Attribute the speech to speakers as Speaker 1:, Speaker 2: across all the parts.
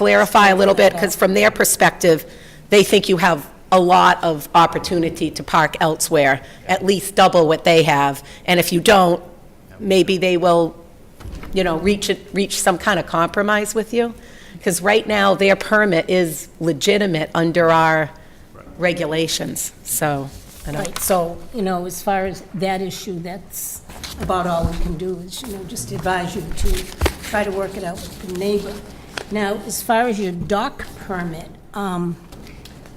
Speaker 1: clarify a little bit, because from their perspective, they think you have a lot of opportunity to park elsewhere, at least double what they have, and if you don't, maybe they will, you know, reach, it- reach some kind of compromise with you, because right now, their permit is legitimate under our regulations, so, I don't,
Speaker 2: Right, so, you know, as far as that issue, that's about all we can do is, you know, just advise you to try to work it out with the neighbor. Now, as far as your dock permit, um,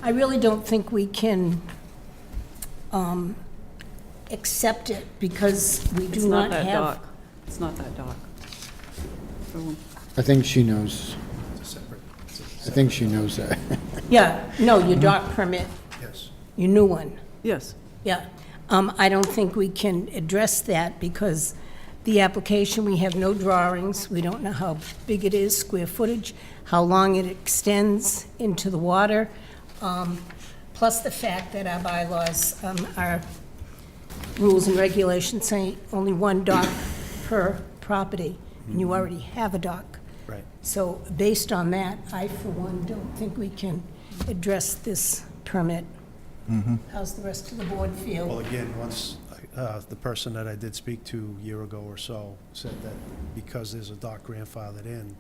Speaker 2: I really don't think we can, um, accept it because we
Speaker 3: It's
Speaker 2: do not
Speaker 3: not that
Speaker 2: have.
Speaker 3: dock. It's not that dock.
Speaker 4: I think she knows. I think she knows that.
Speaker 2: Yeah, no, your dock permit. Yes. Your new one.
Speaker 3: Yes.
Speaker 2: Yeah, um, I don't think we can address that because the application, we have no drawings. We don't know how big it is, square footage, how long it extends into the water. Um, plus the fact that our bylaws, um, our rules and regulations say only one dock per property. And you already have a dock.
Speaker 5: Right.
Speaker 2: So based on that, I for one don't think we can address this permit. How's the rest of the board
Speaker 5: Well,
Speaker 2: feel?
Speaker 5: again, once, uh, the person that I did speak to a year ago or so said that because there's a dock grandfathered in,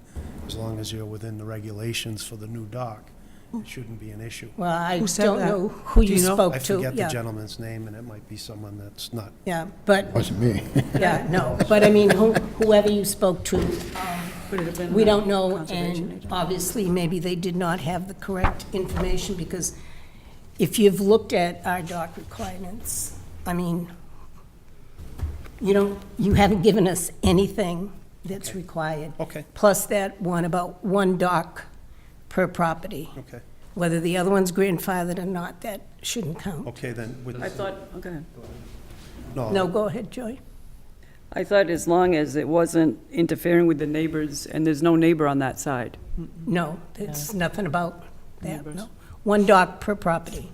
Speaker 5: as long as you're within the regulations for the new dock, it shouldn't be an issue.
Speaker 2: Mm. Well, I
Speaker 3: Who said
Speaker 2: don't
Speaker 3: that?
Speaker 2: know who
Speaker 3: Do
Speaker 2: you
Speaker 3: you know?
Speaker 2: spoke
Speaker 5: I
Speaker 2: to.
Speaker 5: forget the
Speaker 2: yeah,
Speaker 5: gentleman's name, and it might be someone that's not,
Speaker 2: Yeah, but,
Speaker 4: Wasn't me.
Speaker 2: yeah, no, but I mean, who- whoever you spoke to, we don't know, and obviously, maybe they did not have the correct information, because if you've looked at our doc requirements, I mean, you don't, you haven't given us anything that's required.
Speaker 5: Okay.
Speaker 2: Plus that one about one doc per property.
Speaker 5: okay,
Speaker 2: Whether the other one's grandfathered or not, that shouldn't count.
Speaker 5: okay, then, with,
Speaker 3: I thought, oh, okay.
Speaker 2: No,
Speaker 5: no,
Speaker 2: go ahead, Joy.
Speaker 3: I thought as long as it wasn't interfering with the neighbors, and there's no neighbor on that side.
Speaker 2: No, it's nothing about that, no. One dock per property.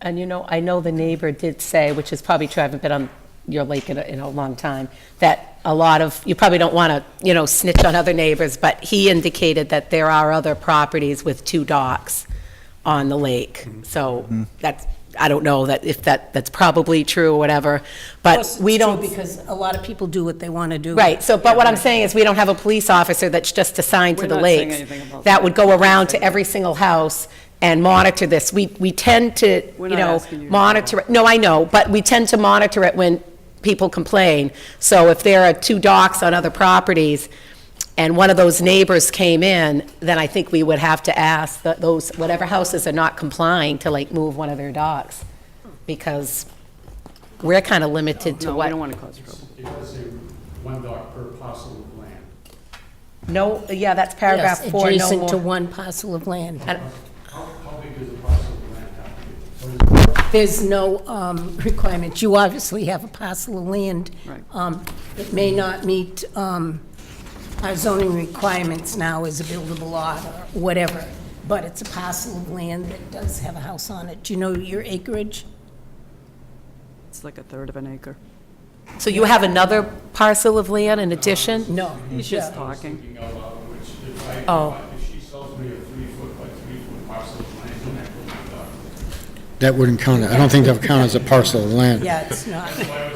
Speaker 1: And you know, I know the neighbor did say, which is probably true, I haven't been on your lake in a, in a long time, that a lot of, you probably don't want to, you know, snitch on other neighbors, but he indicated that there are other properties with two docks on the lake. So that's, I don't know that, if that, that's probably true or whatever, but
Speaker 2: Plus,
Speaker 1: we
Speaker 2: it's true
Speaker 1: don't.
Speaker 2: Because a lot of people do what they want to do.
Speaker 1: Right, so, but what I'm saying is, we don't have a police officer that's just assigned to
Speaker 3: We're
Speaker 1: the
Speaker 3: not saying
Speaker 1: lakes.
Speaker 3: anything about
Speaker 1: That
Speaker 3: that.
Speaker 1: would go around to every single house and monitor this. We, we tend to,
Speaker 3: We're
Speaker 1: you
Speaker 3: not
Speaker 1: know,
Speaker 3: asking you to do
Speaker 1: monitor, it. no, I know, but we tend to monitor it when people complain. So if there are two docks on other properties, and one of those neighbors came in, then I think we would have to ask that those, whatever houses are not complying to like move one of their docks, because we're kind of limited to
Speaker 3: No, we
Speaker 1: what
Speaker 3: don't want to cause trouble.
Speaker 6: It does say one dock per parcel of land.
Speaker 1: No, yeah, that's
Speaker 2: Yes,
Speaker 1: paragraph four, no
Speaker 2: Adjacent to
Speaker 1: more.
Speaker 2: one parcel of land.
Speaker 6: How, how big does a parcel of land have to be?
Speaker 2: There's no um, requirement. You obviously have a parcel of land.
Speaker 3: Right.
Speaker 2: Um, It may not meet um, our zoning requirements now as a buildable lot or whatever, but it's a parcel of land that does have a house on it. Do you know your acreage?
Speaker 3: It's like a third of an acre.
Speaker 1: So you have another parcel of land in addition?
Speaker 2: No.
Speaker 3: He's just talking.
Speaker 6: Thinking out loud, which if I,
Speaker 1: Oh.
Speaker 6: if she sells me a three foot by three foot parcel of land, then that goes my dock.
Speaker 4: That wouldn't count. I don't think that would count as a parcel of land.
Speaker 2: Yeah, it's not.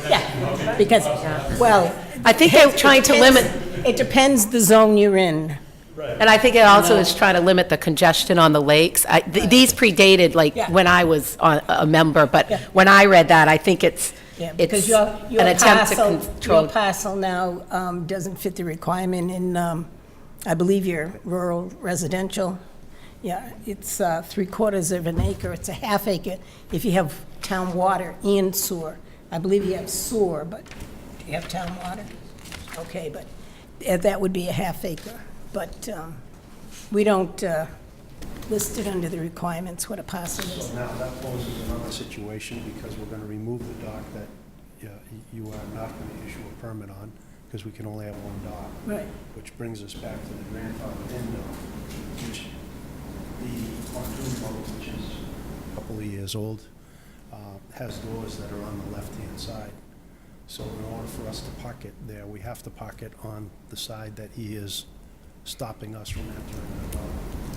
Speaker 2: Yeah, because, well.
Speaker 1: I think they're trying to limit,
Speaker 2: It depends the zone you're in.
Speaker 1: and I think it also is trying to limit the congestion on the lakes. I- th- These predated, like,
Speaker 2: Yeah.
Speaker 1: when I was on- a member, but
Speaker 2: Yeah.
Speaker 1: when I read that, I think it's,
Speaker 2: Yeah,
Speaker 1: it's
Speaker 2: because your,
Speaker 1: an
Speaker 2: your
Speaker 1: attempt to
Speaker 2: parcel, your
Speaker 1: control.
Speaker 2: parcel now um, doesn't fit the requirement in, um, I believe your rural residential. Yeah, it's uh, three quarters of an acre, it's a half acre if you have town water and sewer. I believe you have sewer, but do you have town water? Okay, but eh, that would be a half acre. But um, we don't uh, list it under the requirements what a parcel is.
Speaker 5: now that poses another situation, because we're gonna remove the dock that, yeah, y- you are not gonna issue a permit on, because we can only have one dock.
Speaker 2: Right.
Speaker 5: Which brings us back to the grandfather in law, which the pontoon boat, which is a couple of years old, uh, has doors that are on the left-hand side. So in order for us to park it there, we have to park it on the side that he is stopping us from entering the dock.